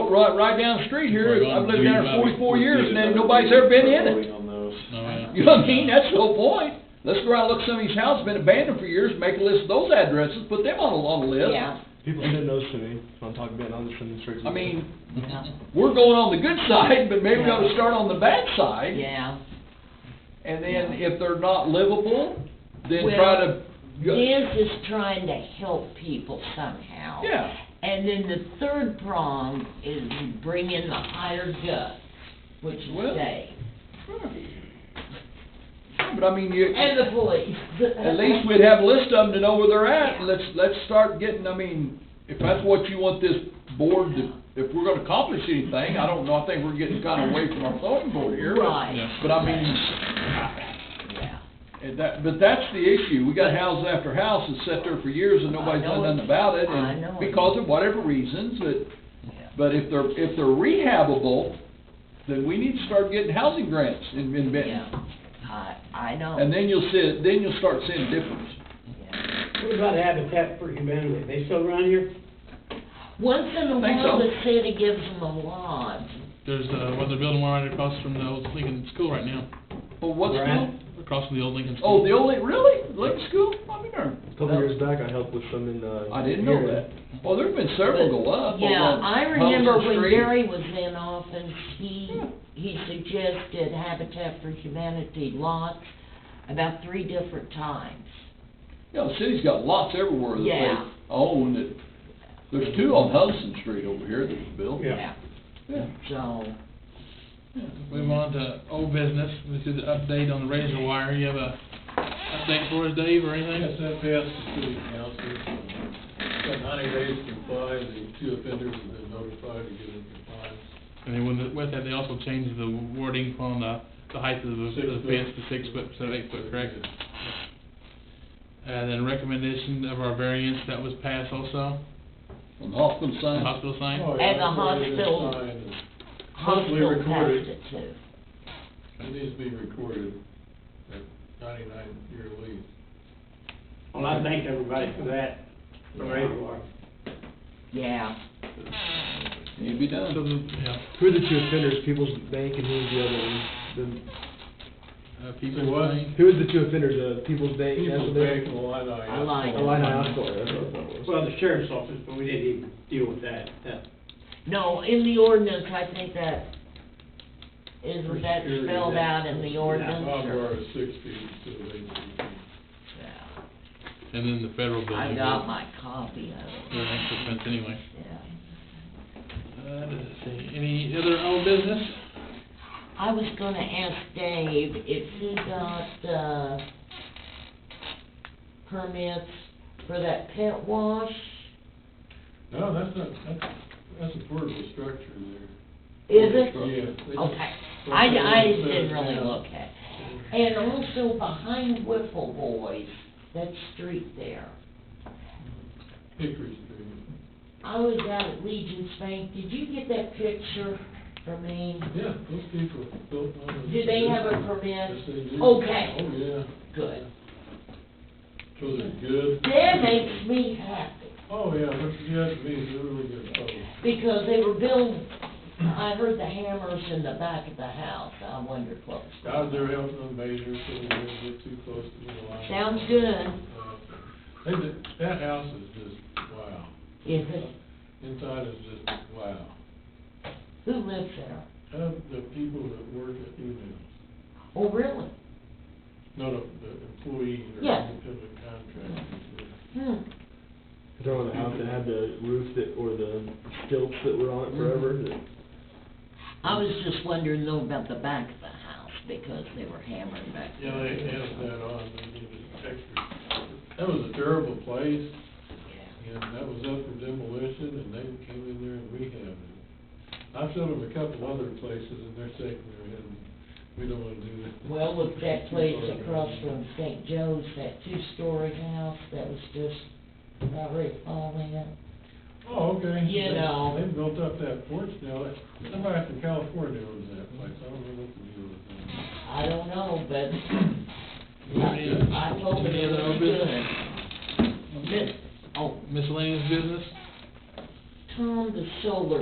right, right down the street here, We're gonna I've lived do down about there it. forty-four years, and then nobody's ever been in it. You know what I mean, that's the whole point. Let's go out and look at some of these houses, been abandoned for years, make a list of those addresses, put them on a long list. Yeah, People send those to me, so I'm talking about, I'm just sending straight to I them. mean, yeah, we're going on the good side, but maybe we ought to Yeah. start on the bad side. yeah. And then if they're not livable, then Well, try to. This is trying to help people somehow. Yeah, And then the third prong is bring in the higher gut, which is Well- they, but I mean, you, and the police. at least we'd have a list of them to know where they're at, and let's, let's start getting, I mean, if that's what you want this board to, if we're gonna accomplish anything, I don't know, I think we're getting kinda away from our zoning board here. but- Right. But I mean, Yeah. and that, but that's the issue, we got house after house that's sat there for years and nobody's done nothing about it, I know and it. because of whatever reasons, but Yeah. But if they're, if they're rehabable, then we need to start getting housing grants in, in Benton. Yeah, I, I know. And then you'll see, then you'll start seeing a difference. Yeah. What about Habitat for Humanity? They still around here? Once in a Think while, so. the city gives them a lodge. There's, uh, what they're building right across from the old Lincoln School right now, But what's Right. going, across from the old Lincoln School. oh, the old, really? Lincoln School? I mean, there- A Couple years back, I helped with some in, uh. I didn't know here. that. Well, there've been several go up. over Yeah, on I remember Huddleston when Street. Gary was in office, he, Yeah. he suggested Habitat for Humanity lots about three different times. Yeah, the city's got lots everywhere that they Yeah. own that, there's two on Hudson Street over here that was built. Yeah. Yeah. So, Move on to old business, which is the update on the razor wire. You have a update for us, Dave, or anything? SFS to city council, got ninety days to comply, the two offenders have been notified to get in compliance. And then with the- with that, they also changed the wording on the, the height of the Six the foot. fence to six foot, instead of eight foot, correct? And then recommendation of our variance that was passed also, On the hospital the sign. hospital sign. Oh, yeah, And the that's already been hospital- signed, Hopefully hospital passed recorded. it too. and It needs to be recorded, that ninety-nine year lease. Well, I thank everybody for that, for where you are. Yeah, You'd be So done. the, yeah, Who are the two offenders, People's Bank and who was the other one? The, uh, people. Say what? saying- who was the two offenders, the People's Bank? and People's the- Bank, Illini. I like it. Illini Hospital, that's what I thought it was. Well, the sheriff's office, but we didn't even deal with that, that. no, in the ordinance, I think that, is For that security, spelled that- out in the yeah, ordinance Barbed or- wire is six feet instead of eight feet. yeah. And then the federal building. I got my copy of it, The next offense anyway. yeah. Uh, let's see, any other old business? I was gonna ask Dave if he got the permits for that pet wash. No, that's not, that's, that's a portable structure there. Is it? Yeah. they just- Okay, I, I didn't really look at. it. And also behind Whipple Boys, that street there. Hickory Street. I was out at Legion's Bank, did you get that picture for me? Yeah, those people built on it. Do they have a permit? Yes, they do. Okay. Oh, yeah. Good. Those are good. That makes me happy. Oh, yeah, what you got to me is a really good photo. Because they were building, I heard the hammers in the back of the house, I wondered what was going I on. was there helping them measure, so we didn't get too close to the line. Sounds good. Uh, They, did- that house is just, wow. Is it, Inside is just, wow. who lives there? Of the people that work at UNIL, Oh, really? not of the employees or Yeah. independent contractors. Hmm, Is that one of the house that had the roof that, or the stilts that were Mm-hmm. on it forever, that? I was just wondering though about the back of the house, because they were hammering back Yeah, there. they added that on, they did it extra. That was a terrible place, Yeah. and that was up for demolition, and they came in there and rehabbed it. I've shown them a couple other places, and they're shaking their head, we don't wanna do that. Well, with that place across from St. Joe's, that two-story house that was just about ready to fall in. Oh, okay. You They- know. They've built up that porch now, That- somebody from California owns that place, I don't know what to do with that. I don't know, but I told them Any it other was old business? good. Miss- Oh, Miscellaneous business? Tom, the solar